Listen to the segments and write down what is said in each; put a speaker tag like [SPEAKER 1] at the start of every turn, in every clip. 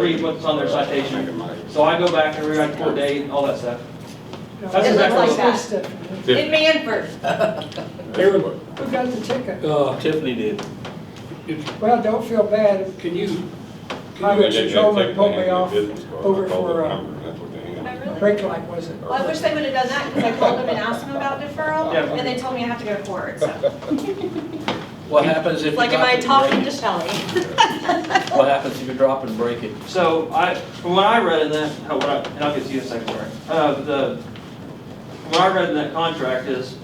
[SPEAKER 1] read what's on their citation. So I go back and rewrite the court date, all that stuff. That's exactly
[SPEAKER 2] like that.
[SPEAKER 3] Stephanie.
[SPEAKER 2] In Manford.
[SPEAKER 4] Aaron,
[SPEAKER 3] Who got the ticket?
[SPEAKER 4] uh,
[SPEAKER 5] Tiffany did.
[SPEAKER 3] Well, don't feel bad.
[SPEAKER 4] can you, can you
[SPEAKER 3] Highway
[SPEAKER 4] let your gentleman
[SPEAKER 3] patrolman pulled me off over
[SPEAKER 6] over
[SPEAKER 3] for, uh, brake light, was it?
[SPEAKER 2] Well, I wish they would have done that because I called them and asked them about deferral
[SPEAKER 1] Yeah.
[SPEAKER 2] and they told me I have to go to court. So
[SPEAKER 5] What happens if you
[SPEAKER 2] Like,
[SPEAKER 5] drop
[SPEAKER 2] am I
[SPEAKER 5] and
[SPEAKER 2] talking to
[SPEAKER 5] break it?
[SPEAKER 2] Shelley?
[SPEAKER 5] What happens if you drop and break it?
[SPEAKER 1] So I, from what I read in that, how- what I- and I'll get to you in a second, Laura. Uh, the, from what I read in that contract is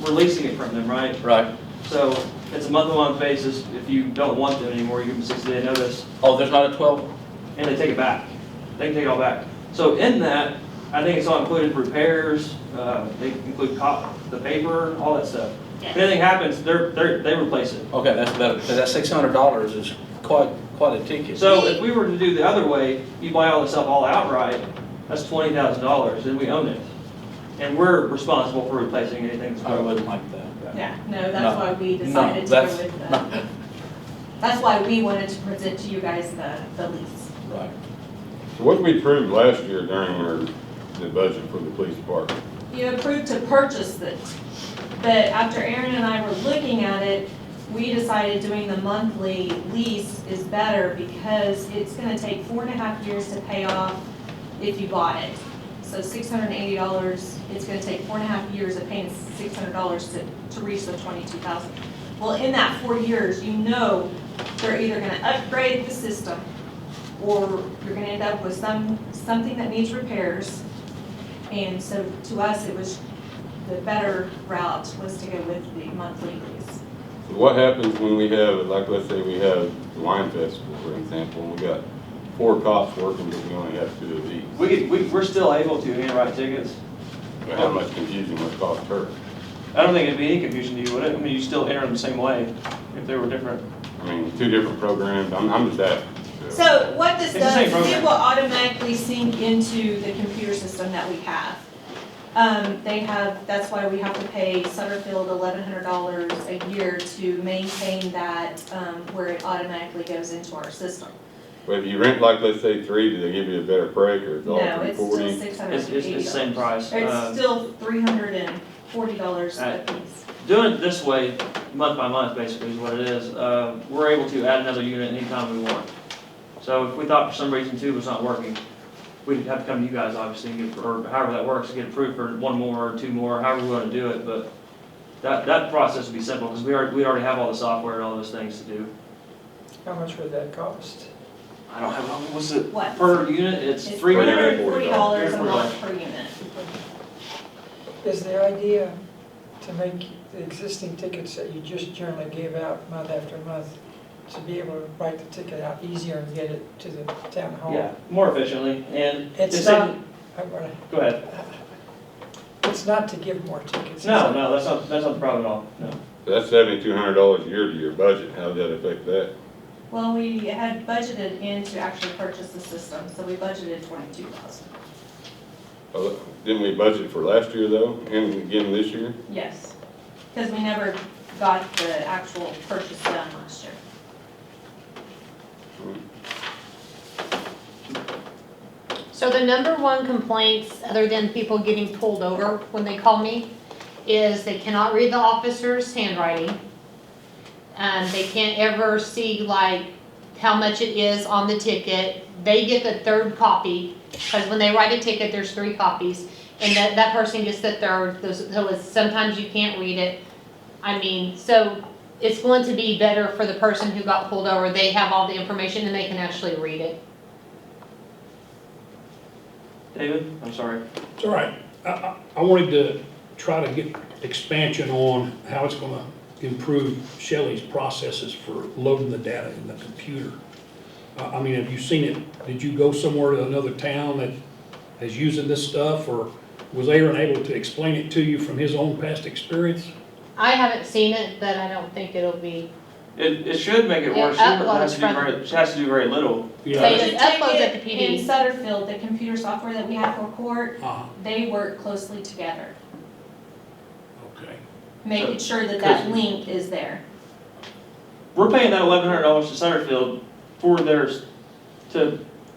[SPEAKER 1] releasing it from them, right?
[SPEAKER 5] Right.
[SPEAKER 1] So it's a month-to-month basis. If you don't want them anymore, you give them sixty-day notice,
[SPEAKER 5] Oh, there's not a twelve?
[SPEAKER 1] and they take it back. They can take it all back. So in that, I think it's all included repairs, uh, they include cop, the paper, all that stuff. If anything happens, they're, they're, they replace it.
[SPEAKER 5] Okay, that's better, 'cause that six hundred dollars is quite, quite a ticket.
[SPEAKER 1] So if we were to do the other way, you buy all this stuff all outright, that's twenty thousand dollars, and we own it. And we're responsible for replacing anything that's
[SPEAKER 5] I
[SPEAKER 1] broken.
[SPEAKER 5] wouldn't like that.
[SPEAKER 2] Yeah, no,
[SPEAKER 5] No.
[SPEAKER 2] that's why we
[SPEAKER 5] No,
[SPEAKER 2] decided to go
[SPEAKER 5] that's-
[SPEAKER 2] with
[SPEAKER 5] no,
[SPEAKER 2] the, that's why we wanted to present to you guys the, the lease.
[SPEAKER 5] Right.
[SPEAKER 6] So what we approved last year during our, the budget for the police department,
[SPEAKER 2] You approved to purchase it, but after Aaron and I were looking at it, we decided doing the monthly lease is better because it's gonna take four and a half years to pay off if you bought it. So six hundred and eighty dollars, it's gonna take four and a half years of paying six hundred dollars to, to reach the twenty-two thousand. Well, in that four years, you know they're either gonna upgrade the system or you're gonna end up with some, something that needs repairs. And so to us, it was, the better route was to go with the monthly lease.
[SPEAKER 6] so what happens when we have, like, let's say we have the wine festival, for example, and we got four cops working, but we only have two of these?
[SPEAKER 1] We could, we, we're still able to handwrite tickets.
[SPEAKER 6] How much confusion would cost her?
[SPEAKER 1] I don't think it'd be any confusion to you, would it? I mean, you still enter them the same way if they were different.
[SPEAKER 6] I mean, two different programs, I'm, I'm just asking.
[SPEAKER 2] So what this
[SPEAKER 1] It's the same
[SPEAKER 2] does, is it
[SPEAKER 1] program.
[SPEAKER 2] will automatically sync into the computer system that we have. Um, they have, that's why we have to pay Sutterfield eleven hundred dollars a year to maintain that, um, where it automatically goes into our system.
[SPEAKER 6] But if you rent, like, let's say three, do they give you a better break, or it's all
[SPEAKER 2] No,
[SPEAKER 6] three
[SPEAKER 2] it's still
[SPEAKER 6] forty?
[SPEAKER 2] six hundred
[SPEAKER 1] It's,
[SPEAKER 2] and
[SPEAKER 1] it's,
[SPEAKER 2] eighty
[SPEAKER 1] it's the same
[SPEAKER 2] dollars.
[SPEAKER 1] price. Uh,
[SPEAKER 2] It's still three hundred and forty dollars a
[SPEAKER 1] Right.
[SPEAKER 2] piece.
[SPEAKER 1] Doing it this way, month by month, basically is what it is, uh, we're able to add another unit anytime we want. So if we thought for some reason two was not working, we'd have to come to you guys, obviously, and get- or however that works, get approved for one more or two more, however we wanna do it, but that, that process would be simple, because we already, we already have all the software and all those things to do.
[SPEAKER 3] How much would that cost?
[SPEAKER 1] I don't have, what's it,
[SPEAKER 2] What?
[SPEAKER 1] per unit, it's
[SPEAKER 2] It's
[SPEAKER 1] three hundred.
[SPEAKER 2] $340 a
[SPEAKER 1] $340.
[SPEAKER 2] month per unit.
[SPEAKER 3] Is the idea to make the existing tickets that you just generally gave out month after month, to be able to write the ticket out easier and get it to the town hall?
[SPEAKER 1] Yeah, more efficiently, and.
[SPEAKER 3] It's
[SPEAKER 1] same-
[SPEAKER 3] not, I'm gonna-
[SPEAKER 1] Go ahead,
[SPEAKER 3] it's not to give more tickets.
[SPEAKER 1] no, no, that's not, that's not the problem at all, no.
[SPEAKER 6] That's seventy-two hundred dollars a year to your budget, how does that affect that?
[SPEAKER 2] Well, we had budgeted in to actually purchase the system, so we budgeted twenty-two thousand.
[SPEAKER 6] Well, Uh, Didn't we budget for last year though, and again this year?
[SPEAKER 2] Yes. Because we never got the actual purchase done last year.
[SPEAKER 7] So the number one complaints, other than people getting pulled over when they call me, is they cannot read the officer's handwriting. Um, they can't ever see like how much it is on the ticket. They get the third copy, because when they write a ticket, there's three copies. And that, that person gets the third, those- so it's, sometimes you can't read it. I mean, so it's going to be better for the person who got pulled over. They have all the information and they can actually read it.
[SPEAKER 1] David, I'm sorry.
[SPEAKER 4] it's all right. I, I, I wanted to try to get expansion on how it's gonna improve Shelley's processes for loading the data in the computer. I, I mean, have you seen it? Did you go somewhere to another town that is using this stuff, or was Aaron able to explain it to you from his own past experience?
[SPEAKER 7] I haven't seen it, but I don't think it'll be,
[SPEAKER 1] It, it should make it
[SPEAKER 7] Yeah,
[SPEAKER 1] worse, too, but it
[SPEAKER 7] upload
[SPEAKER 1] has to do
[SPEAKER 7] from-
[SPEAKER 1] very, it has to do very little.
[SPEAKER 4] You know,
[SPEAKER 7] Say
[SPEAKER 4] that's-
[SPEAKER 7] it. just uploads at the
[SPEAKER 2] Ticket In
[SPEAKER 7] PD.
[SPEAKER 2] Sutterfield, the computer software that we have for court,
[SPEAKER 4] Uh-huh,
[SPEAKER 2] they work closely together,
[SPEAKER 4] okay.
[SPEAKER 2] making sure that that link is there.
[SPEAKER 1] We're paying that eleven hundred dollars to Centerfield for theirs, to